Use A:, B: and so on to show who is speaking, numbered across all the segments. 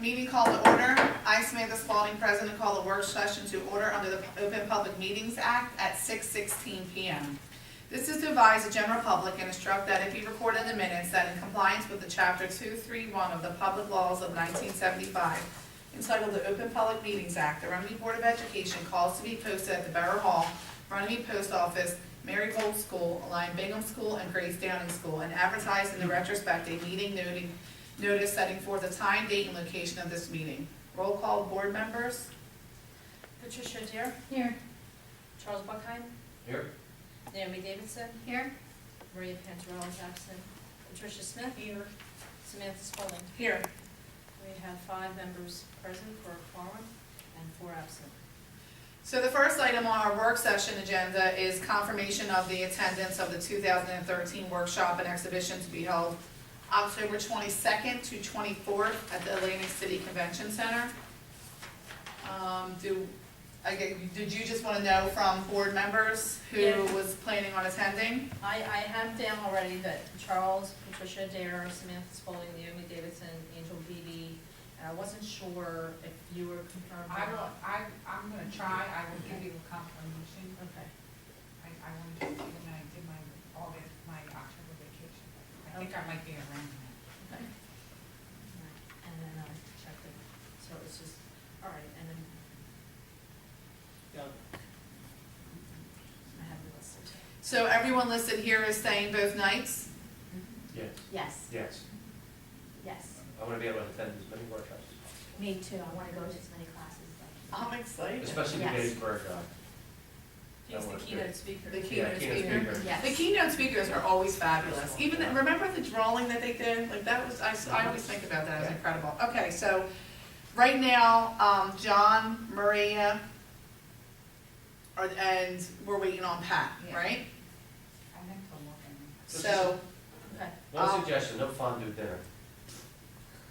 A: Meeting call to order. I, Samantha Spalding, President, call the work session to order under the Open Public Meetings Act at 6:16 PM. This is to advise the general public and instruct that if you record in the minutes that in compliance with the Chapter 231 of the Public Laws of 1975, entitled the Open Public Meetings Act, the Runnymede Board of Education calls to be posted at the Borough Hall, Runnymede Post Office, Marygold School, Lyon Bingham School, and Grace Downing School, and advertised in the retrospect a meeting noting, notice setting forth the time, date, and location of this meeting. Roll call, board members?
B: Patricia Deer,
C: Here.
B: Charles Buckheim,
D: Here.
B: Naomi Davidson,
C: Here.
B: Maria Panzarella is absent, Patricia Smith. Here. Samantha Spalding.
A: Here.
B: We have five members present for a quorum and four absent.
A: So the first item on our work session agenda is confirmation of the attendance of the 2013 workshop and exhibition to be held October 22nd to 24th at the Atlantic City Convention Center. Um, Do, again, did you just want to know from board members who
B: Yeah.
A: was planning on attending?
B: I, I have down already that Charles, Patricia Dare, Samantha Spalding, Naomi Davidson, Angel Beebe, and I wasn't sure if you were confirmed.
E: I will, I, I'm gonna try, I will give you a confirmation,
B: Okay,
E: I, I wanted to, do when I did my, all this, my October vacation, I think I might be around that.
B: okay. And then I checked it, so it's just, all right, and then I have the list.
A: So everyone listed here is staying both nights?
D: Yes.
C: Yes,
D: Yes.
C: yes.
D: I want to be able to attend as many workshops as
C: Me too. I want to go to as many classes as
A: I'm
D: possible,
A: excited.
D: especially the
C: Yes.
D: Gettysburg. uh,
B: He's
D: that
B: the
D: works good.
B: keynote speaker.
A: The key-
D: Yeah,
A: Keynote
D: keynote
A: speaker.
D: speaker.
C: Yes.
A: The keynote speakers are always fabulous. Even, the- remember the drawing that they did? Like, that was, I, s- I always think about that as incredible. Okay, so, right now, um, John, Maria, are, and we're waiting on Pat,
E: Yeah.
A: right?
E: I meant to look in.
A: So,
B: Okay.
D: One
C: Oh.
A: Um,
D: suggestion, no fondue dinner.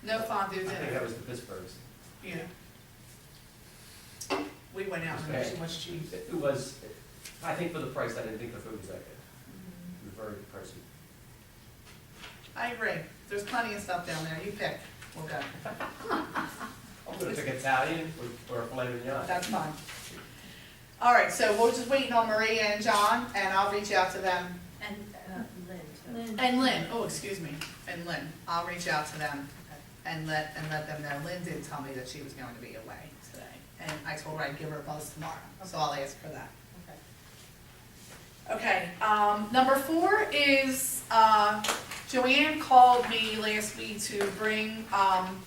A: no fondue
D: I think
A: dinner,
D: that was the Pittsburghs.
A: yeah. We went out and had too much cheese.
D: It was, I think for the price, I didn't think the food was that good.
C: Mm-hmm.
D: It was Very pricey.
A: I agree. There's plenty of stuff down there. You pick. We'll go.
C: Oh,
D: I'm going to pick Italian or- or filet mignon.
A: That's fine. All right, so we're just waiting on Maria and John, and I'll reach out to them
B: And uh, Lynn, too.
C: possible. Lynn.
A: And Lynn, oh, excuse me, and Lynn, I'll reach out to them and let, and let them know, Lynn did tell me that she was going to be away today. And I told her I'd give her a buzz tomorrow, so I'll ask for that.
B: Okay.
A: Okay, um, number four is, uh, Joanne called me last week to bring, um,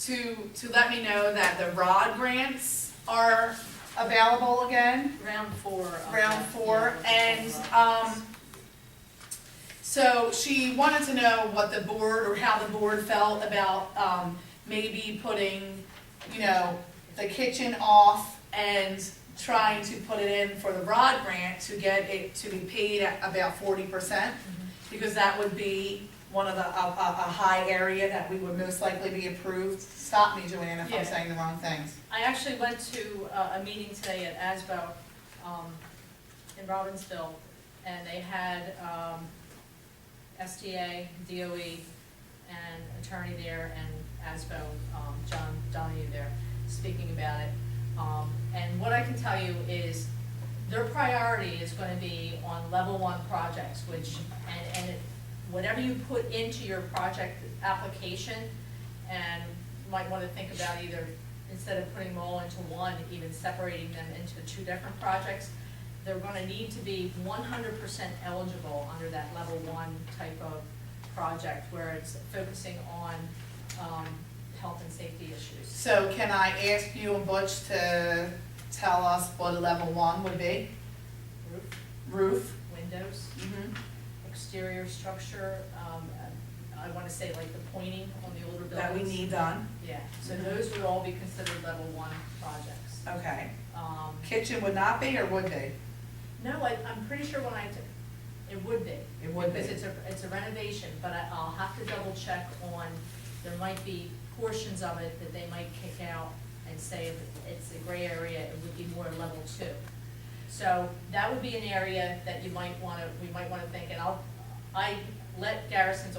A: to, to let me know that the ROD grants are available again.
B: Round four. of
A: round
B: the-
A: four,
B: yeah,
A: and,
B: of the-
A: um, so she wanted to know what the board, or how the board felt about, um, maybe putting, you know, the kitchen off and trying to put it in for the rod grant to get it to be paid at about forty percent, because that would be one of the, a, a, a high area that we would most likely be approved. Stop me, Joanna, if
B: Yeah.
A: I'm saying the wrong things.
B: I actually went to uh, a meeting today at ASBO, um, in Robbinsville, and they had, um, SDA, DOE, E, and attorney there, and ASBO, um, John Donahue there, speaking about it. Um, and what I can tell you is, their priority is gonna be on level one projects, which, and, and it- whatever you put into your project application, and you might wanna think about either, instead of putting them all into one, even separating them into two different projects, they're gonna need to be one hundred percent eligible under that level one type of project, where it's focusing on, um, health and safety issues.
A: So can I ask you and Butch to tell us what a level one would be?
B: Roof,
A: Roof?
B: windows,
A: Mm-hmm.
B: exterior structure, um, I wanna say like the pointing on the older buildings.
A: That we need done,
B: Yeah, so those would all be considered level one projects.
A: okay.
B: Um,
A: Kitchen would not be or would be?
B: no, I, I'm pretty sure when I, t- it would be.
A: It would be.
B: Because it's a, it's a renovation, but I, I'll have to double check on, there might be portions of it that they might kick out and say if it's a gray area, it would be more level two. So that would be an area that you might wanna, we might wanna think, and I'll, I let Garrison's